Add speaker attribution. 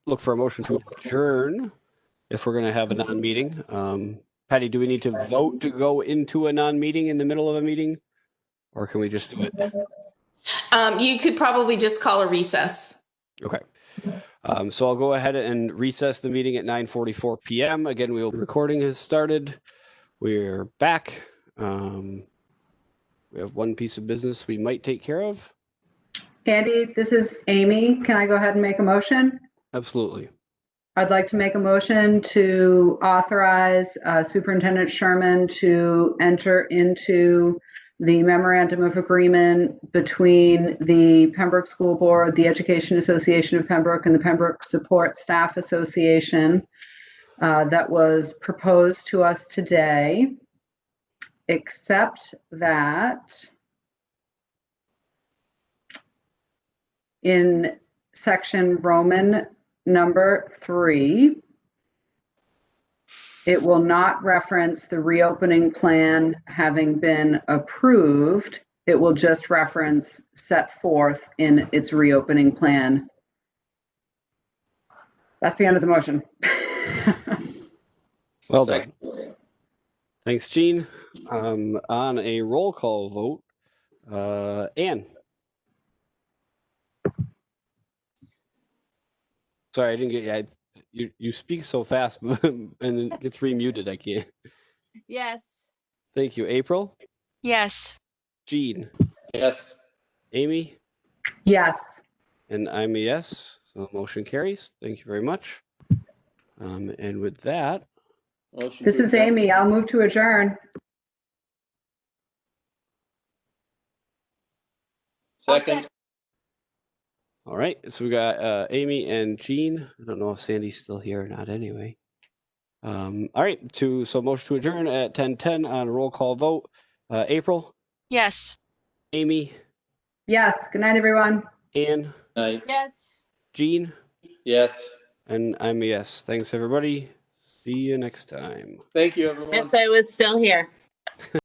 Speaker 1: look for a motion to adjourn if we're going to have a non-meeting. Um, Patty, do we need to vote to go into a non-meeting in the middle of a meeting? Or can we just do it?
Speaker 2: Um, you could probably just call a recess.
Speaker 1: Okay. Um, so I'll go ahead and recess the meeting at 9:44 PM. Again, we'll, recording has started. We're back. Um, we have one piece of business we might take care of.
Speaker 3: Andy, this is Amy. Can I go ahead and make a motion?
Speaker 1: Absolutely.
Speaker 3: I'd like to make a motion to authorize uh, Superintendent Sherman to enter into the memorandum of agreement between the Pembroke School Board, the Education Association of Pembroke, and the Pembroke Support Staff Association uh, that was proposed to us today, except that in section Roman number three, it will not reference the reopening plan having been approved. It will just reference set forth in its reopening plan. That's the end of the motion.
Speaker 1: Well done. Thanks, Gene. Um, on a roll call vote, uh, Ann. Sorry, I didn't get, I, you, you speak so fast and then it gets remuted. I can't.
Speaker 4: Yes.
Speaker 1: Thank you. April,
Speaker 4: Yes.
Speaker 1: Gene,
Speaker 5: Yes.
Speaker 1: Amy,
Speaker 3: Yes,
Speaker 1: and I'm a yes. So the motion carries. Thank you very much. Um, and with that,
Speaker 5: Motion
Speaker 3: this
Speaker 5: to
Speaker 3: is
Speaker 5: adjourn.
Speaker 3: Amy. I'll move to adjourn.
Speaker 5: Second,
Speaker 1: all right. So we got uh, Amy and Gene. I don't know if Sandy's still here or not. Anyway. Um, all right. To so motion to adjourn at 10:10 on a roll call vote. Uh, April,
Speaker 4: Yes.
Speaker 1: Amy,
Speaker 3: Yes, good night, everyone.
Speaker 1: Ann,
Speaker 5: Aye.
Speaker 4: Yes.
Speaker 1: Gene,
Speaker 5: yes.
Speaker 1: and I'm a yes. Thanks everybody. See you next time.
Speaker 5: Thank you, everyone.
Speaker 6: Yes, I was still here.